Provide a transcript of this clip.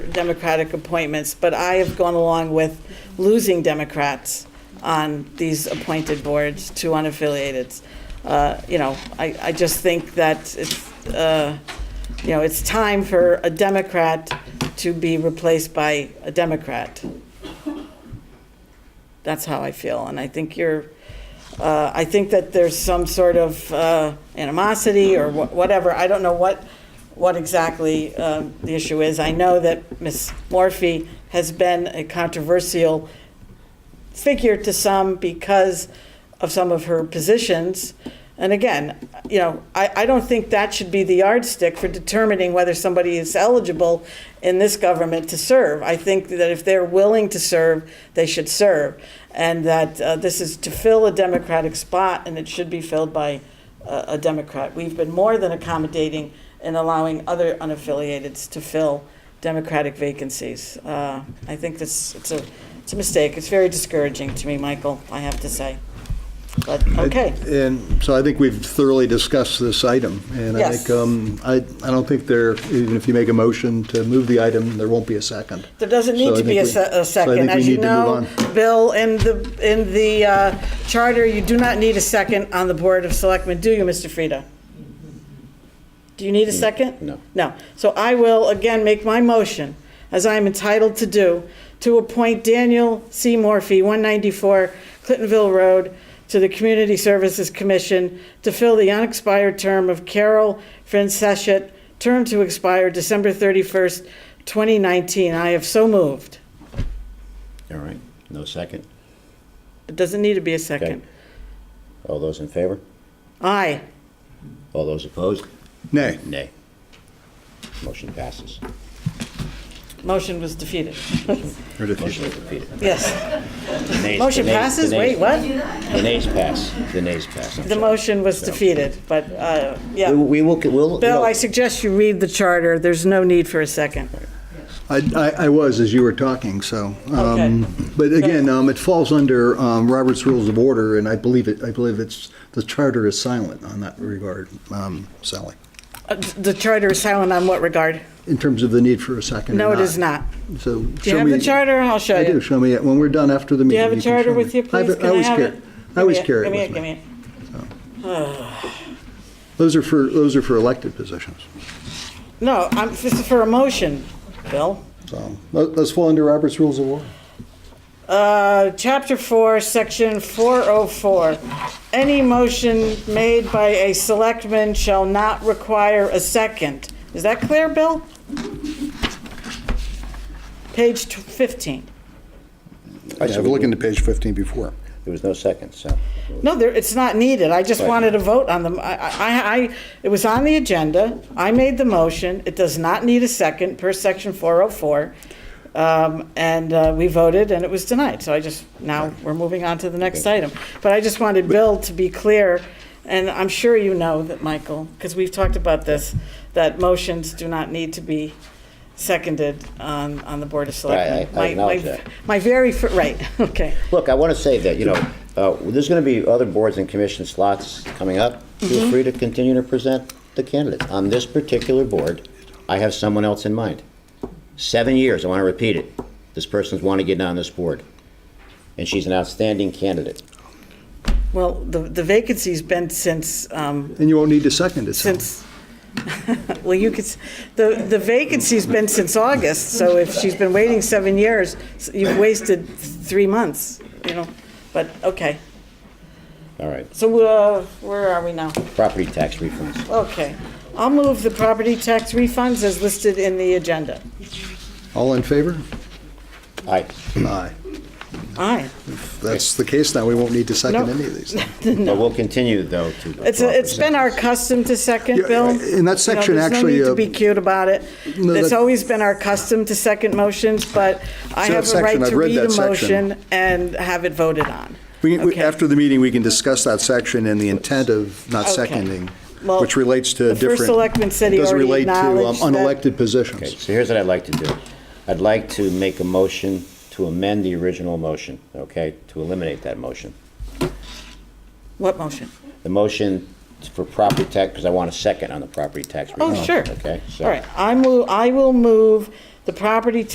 Democratic appointments, but I have gone along with losing Democrats on these appointed boards to unaffiliated. Uh, You know, I, I just think that it's, uh, you know, it's time for a Democrat to be replaced by a Democrat. That's how I feel, and I think you're, uh, I think that there's some sort of uh, animosity or wha- whatever. I don't know what, what exactly um, the issue is. I know that Ms. Morphy has been a controversial figure to some because of some of her positions. And again, you know, I, I don't think that should be the yardstick for determining whether somebody is eligible in this government to serve. I think that if they're willing to serve, they should serve. And that uh, this is to fill a Democratic spot and it should be filled by uh, a, a Democrat. We've been more than accommodating in allowing other unaffiliateds to fill Democratic vacancies. Uh, I think this, it's a, it's a mistake. It's very discouraging to me, Michael, I have to say. But, okay. And so I think we've thoroughly discussed this item. And I Yes. think, um, I, I don't think there, even if you make a motion to move the item, there won't be a second. There doesn't So need I to be a think we- se- a so I second. think we As you need to know, move Bill, in the, in the uh, charter, you do not need a second on the Board of Selectmen, do you, Mr. Frida? Do you need a second? Mm. no. No. So I will again make my motion, as I am entitled to do, to appoint Daniel C. Morphy, 194 Clintonville Road, to the Community Services Commission to fill the unexpired term of Carol Franceschet, term to expire December 31st, 2019. I have so moved. All right, no second? It doesn't need to be a Okay. second. All those in favor? Aye. All those opposed? Nay. Nay. Motion passes. Motion was defeated. Motion is defeated. Yes. The nays- Motion the nays- passes? the Wait, nays- what? The nays pass, the nays pass. I'm The sorry. motion was So- defeated, but, uh, yeah. We will- We will, we'll. Bill, I suggest you read the charter. There's no need for a second. I, I I was as you were talking, so. um, Okay. But again, um, it falls under um, Robert's Rules of Order, and I believe it, I believe it's, the charter is silent on that regard, um, Sally, Uh, The charter is silent on what regard? in terms of the need for a second or No, it is not. So. Do you have the charter? I'll show I do, you. show me it, when we're done after the Do meeting. you have a can charter show me. with you, I have please? it- I Can I always have carry- it? Give I always me carry it Give me with me. Give me it. Those are for, those are for elected positions. No, I'm, this is for a motion, Bill. So let- let's fall under Robert's Rules of Order. Uh, Chapter 4, Section 404. Any motion made by a selectman shall not require a second. Is that clear, Bill? Page tw- 15. I should look into page 15 before. There was no second, so. No, there, it's not needed. I just Right. wanted a vote on them. I, I, I, it was on the agenda. I made the motion. It does not need a second per section 404. Um, and, uh, we voted and it was denied. So I just, now we're moving on to the next item. But I just wanted Bill to be clear, and I'm sure you know that, Michael, because we've talked about this, that motions do not need to be seconded on, on the Board of Selectmen. I My- my- acknowledge that. My very, fir- right, okay. Look, I want to say that, you know, uh, there's going to be other boards and commission slots coming up. Feel Mm-hmm. free to continue to present the candidates. On this particular board, I have someone else in mind. Seven years, I want to repeat it, this person's wanting to get on this board, and she's an outstanding candidate. Well, the, the vacancy's been since, um, And you won't need to second it. Sally. since, well, you could, s- the, the vacancy's been since August, so if she's been waiting seven years, s- you've wasted three months, you know, but, okay. All right, So, uh, where are we now? property tax refunds. Okay. I'll move the property tax refunds as listed in the agenda. All in favor? Aye. Aye. Aye. If that's the case, now we won't need to second Nope. any of these. But we'll continue, though, to. It's, a- it's been our custom to second, Yeah, Bill. in that You know, section, actually, There's no uh, need to be cute about it. No, It's that- always been our custom to second motions, but I have So that a right section, to I've read read a that section. motion and have it voted on. We can- we- Okay. After the meeting, we can discuss that section and the intent of not Okay. seconding, Well, which relates to the different. first selectman said he doesn't already relate to, um, acknowledged that- Unelected Okay, positions. so here's what I'd like to do. I'd like to make a motion to amend the original motion, okay, to eliminate that motion. What motion? The motion for property tax, because I want a second on the property tax. Oh, refund, sure. Okay, so. All right, I move, I will move the property